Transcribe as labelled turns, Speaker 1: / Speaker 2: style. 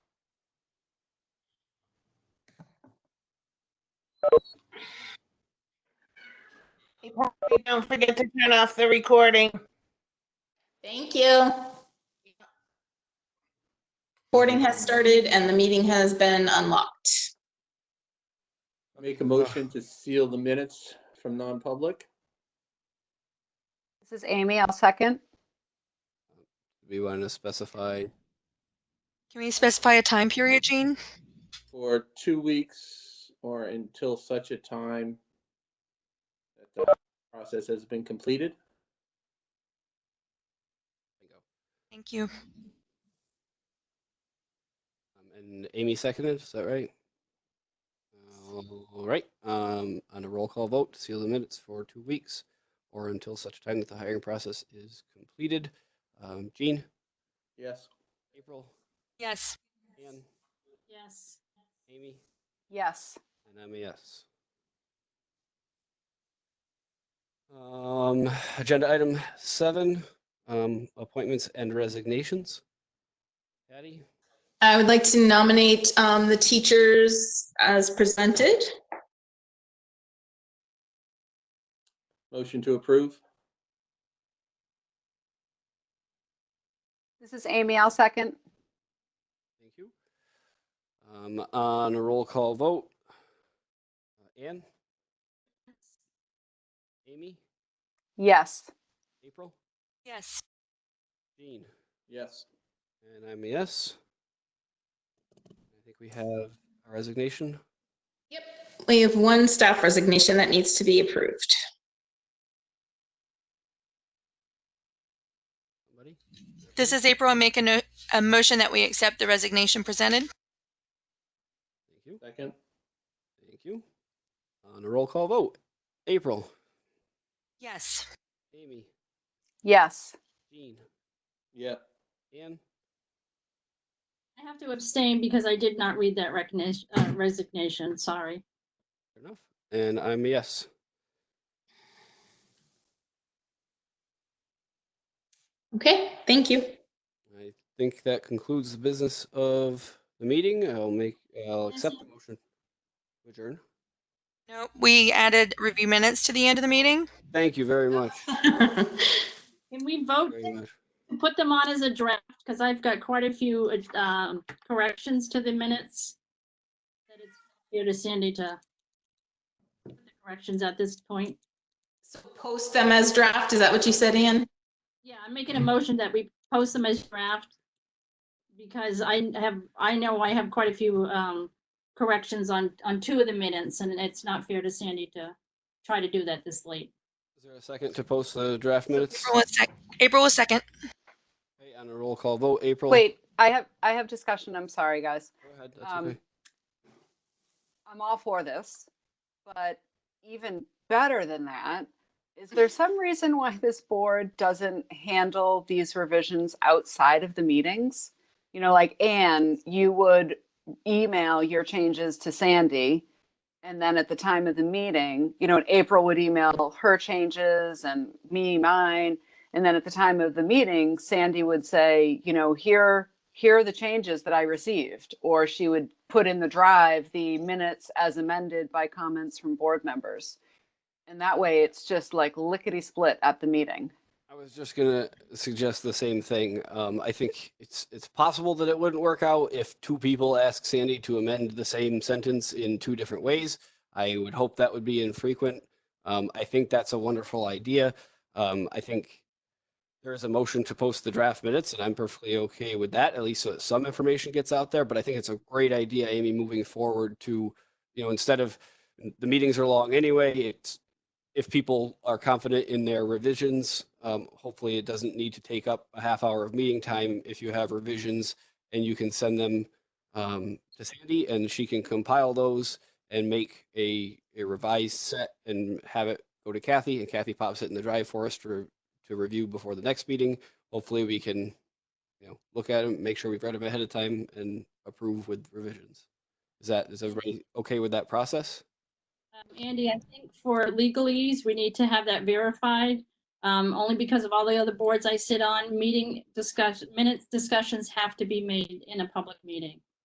Speaker 1: Hey, Patty, Don't forget to turn off the recording.
Speaker 2: Thank you. Recording has started and the meeting has been unlocked.
Speaker 3: I Make a motion to seal the minutes from non-public.
Speaker 4: This is Amy. I'll second.
Speaker 5: We want to specify
Speaker 6: Can we specify a time period, Jean?
Speaker 3: for two weeks or until such a time that the process has been completed.
Speaker 6: Thank you.
Speaker 5: Um, And Amy seconded, is that right? All right, um, on a roll call vote, to seal the minutes for two weeks or until such time that the hiring process is completed. Um, Jean,
Speaker 3: Yes.
Speaker 5: April,
Speaker 6: Yes.
Speaker 5: Ann,
Speaker 2: Yes.
Speaker 5: Amy,
Speaker 4: Yes.
Speaker 5: and I'm a yes. Um, agenda item seven, um, appointments and resignations. Patty,
Speaker 2: I would like to nominate um, the teachers as presented.
Speaker 3: Motion to approve.
Speaker 4: This is Amy. I'll second.
Speaker 5: thank you. Um, on a roll call vote, uh, Ann, Amy,
Speaker 4: Yes.
Speaker 5: April,
Speaker 6: Yes.
Speaker 5: Jean,
Speaker 3: Yes.
Speaker 5: and I'm a yes. I think we have a resignation.
Speaker 2: We have one staff resignation that needs to be approved.
Speaker 5: Somebody?
Speaker 6: This is April. I make a, no- a motion that we accept the resignation presented.
Speaker 5: Thank you.
Speaker 3: Second.
Speaker 5: Thank you. On a roll call vote, April,
Speaker 6: Yes.
Speaker 5: Amy,
Speaker 4: Yes.
Speaker 5: Jean,
Speaker 3: Yeah.
Speaker 5: Ann,
Speaker 7: I have to abstain because I did not read that recognition, uh, resignation, sorry.
Speaker 5: fair enough, and I'm a yes.
Speaker 2: Okay, thank you.
Speaker 5: I think that concludes the business of the meeting. I'll make, I'll
Speaker 7: Yes,
Speaker 5: accept
Speaker 7: sir.
Speaker 5: the motion. to Adjourn.
Speaker 6: No, we added review minutes to the end of the meeting.
Speaker 5: Thank you very much.
Speaker 7: Can we vote,
Speaker 5: Very much.
Speaker 7: to put them on as a draft, because I've got quite a few uh, um, corrections to the minutes. That it's here to Sandy to put the corrections at this point.
Speaker 2: So post them as draft, is that what you said, Ann?
Speaker 7: Yeah, I'm making a motion that we post them as draft. Because I have, I know I have quite a few um, corrections on, on two of the minutes, and it's not fair to Sandy to try to do that this late.
Speaker 5: Is there a second to post the draft minutes?
Speaker 6: April was, sec- April was second.
Speaker 5: Okay, on a roll call vote, April.
Speaker 4: Wait, I have, I have discussion. I'm sorry, guys.
Speaker 5: Go ahead, that's
Speaker 4: Um,
Speaker 5: okay.
Speaker 4: I'm all for this, but even better than that, is there some reason why this board doesn't handle these revisions outside of the meetings? You know, like Anne, you would email your changes to Sandy. And then at the time of the meeting, you know, and April would email her changes and me mine. And then at the time of the meeting, Sandy would say, you know, here, here are the changes that I received. Or she would put in the drive the minutes as amended by comments from board members. And that way it's just like lickety split at the meeting.
Speaker 5: I was just gonna suggest the same thing. Um, I think it's, it's possible that it wouldn't work out if two people ask Sandy to amend the same sentence in two different ways. I would hope that would be infrequent. Um, I think that's a wonderful idea. Um, I think there is a motion to post the draft minutes and I'm perfectly okay with that, at least so that some information gets out there. But I think it's a great idea, Amy, moving forward to, you know, instead of, the meetings are long anyway, it's if people are confident in their revisions, um, hopefully it doesn't need to take up a half hour of meeting time if you have revisions and you can send them um, to Sandy and she can compile those and make a, a revised set and have it go to Kathy and Kathy pops it in the drive for us to, re- to review before the next meeting. Hopefully we can, you know, look at them, make sure we've read them ahead of time and approve with revisions. Is that, is everybody okay with that process?
Speaker 7: Um, Andy, I think for legalese, we need to have that verified, um, only because of all the other boards I sit on, meeting discussion, minutes discussions have to be made in a public meeting.